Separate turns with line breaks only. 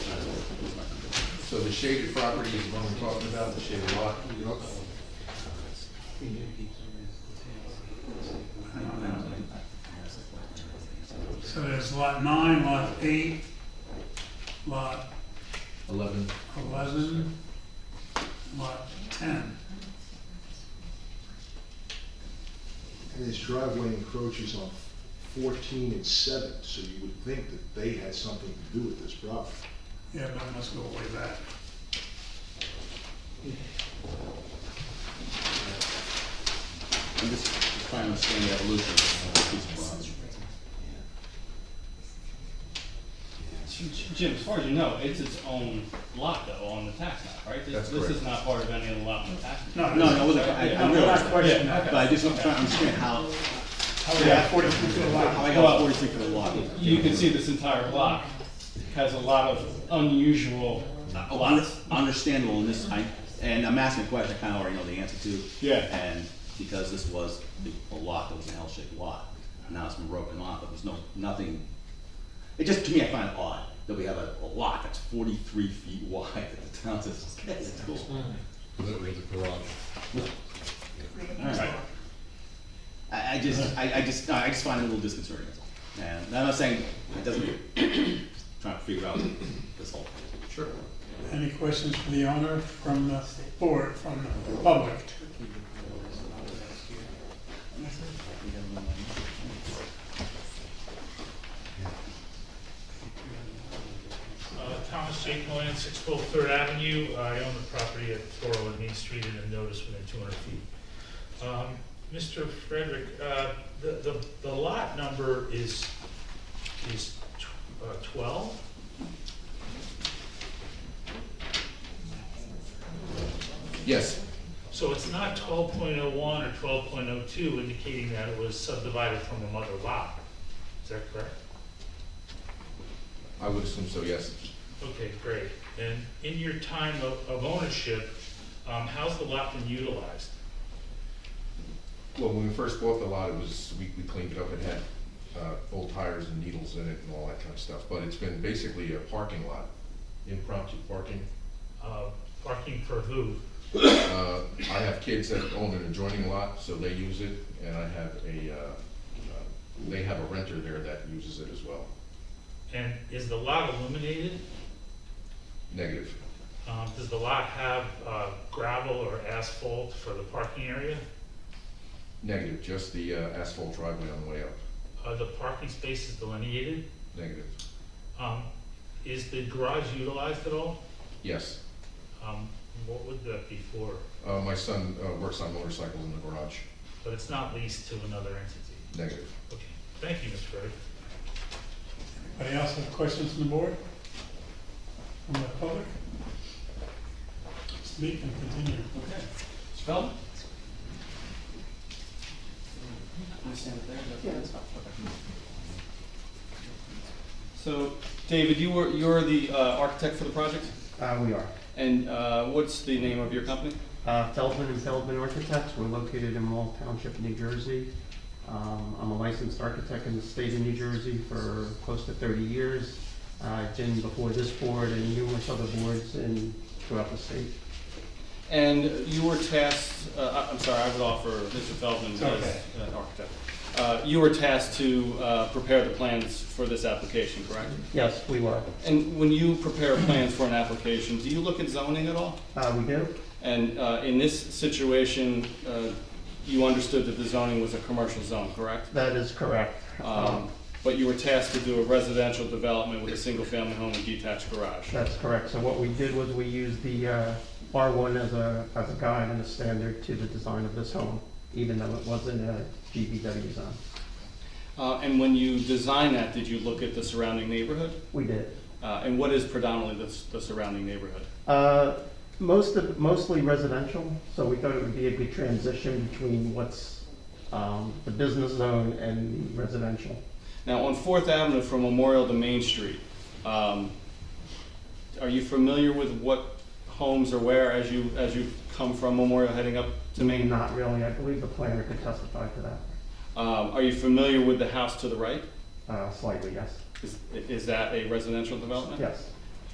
So the shaded property is what I'm talking about, the shaded lot. You know,
So there's lot nine, lot eight, lot
eleven,
eleven, lot ten.
And this driveway encroaches on fourteen and seven, so you would think that they had something to do with this problem.
Yeah, but it must go way back.
I'm just trying to understand the evolution of these lots.
Jim, as far as you know, it's its own lot though, on the tax map, right? This-
That's
This
correct.
is not part of any of the lot on the tax map.
No, no, I wasn't, I, I
Yeah,
realized,
yeah,
that,
okay.
but I just want to try to understand how,
How we got forty-three foot
how I got forty-three for the lot.
You can see this entire block has a lot of unusual
Uh,
lots.
un- Understandable, and this, I, and I'm asking a question I kinda already know the answer to.
Yeah.
And because this was a- a lot that was an L-shaped lot, now it's been broken off, there was no, nothing. It just, to me, I find it odd that we have a, a lot that's forty-three feet wide that the town says, okay, it's cool.
that was the garage.
Alright. I, I just, I, I just, no, I just find it a little disconcerting, that's all. And I'm not saying it doesn't, just trying to figure out this whole.
Sure.
Any questions for the owner, from the board, from the public?
Uh, Thomas J. Cohen, six twelve Third Avenue. I own the property at four oh one Main Street and a notice within two hundred feet. Um, Mr. Frederick, uh, the, the, the lot number is, is uh, twelve?
yes,
So it's not twelve point oh one or twelve point oh two indicating that it was subdivided from another lot. Is that correct?
I would assume so, yes.
Okay, great. And in your time of, of ownership, um, how's the lot been utilized?
Well, when we first bought the lot, it was, we, we cleaned it up, it had, uh, old tires and needles in it and all that kind of stuff, but it's been basically a parking lot, impromptu parking.
Uh, Parking for who?
Uh, I have kids that own an adjoining lot, so they use it, and I have a, uh, uh, they have a renter there that uses it as well,
And is the lot illuminated?
negative.
Um, Does the lot have uh, gravel or asphalt for the parking area?
Negative, just the uh, asphalt driveway on the way up,
Are the parking spaces delineated?
negative.
Um, Is the garage utilized at all?
Yes,
Um, What would that be for?
uh, my son uh, works on motorcycles in the garage,
But it's not leased to another entity.
negative.
Okay, thank you, Mr. Frederick.
Anybody else have questions from the board? From the public? Speak and continue.
Okay. Mr. Feldman? So, David, you were, you're the uh, architect for the project,
Uh, we are.
and uh, what's the name of your company?
Uh, Feldman and Feldman Architects, we're located in Wall Township, New Jersey. Um, I'm a licensed architect in the state of New Jersey for close to thirty years. Uh, I've been before this board and numerous other boards in, throughout the state.
And you were tasked, uh, I- I'm sorry, I would offer Mr. Feldman as
Okay.
an architect. Uh, You were tasked to uh, prepare the plans for this application, correct?
Yes, we were.
And when you prepare plans for an application, do you look at zoning at all?
Uh, we do?
And uh, in this situation, uh, you understood that the zoning was a commercial zone, correct?
That is correct.
Um, But you were tasked to do a residential development with a single-family home and detached garage.
That's correct. So what we did was we used the, uh, R1 as a, as a guide and a standard to the design of this home, even though it wasn't a GBW zone.
Uh, And when you designed that, did you look at the surrounding neighborhood?
We did.
Uh, And what is predominantly the s- the surrounding neighborhood?
Uh, Most of, mostly residential, so we thought it would be a good transition between what's um, the business zone and the residential.
Now, on Fourth Avenue from Memorial to Main Street, um, are you familiar with what homes are where as you, as you come from Memorial heading up to Main?
Not really, I believe the planner could testify to that
Um, Are you familiar with the house to the right?
uh, slightly, yes,
Is, is that a residential development?
yes.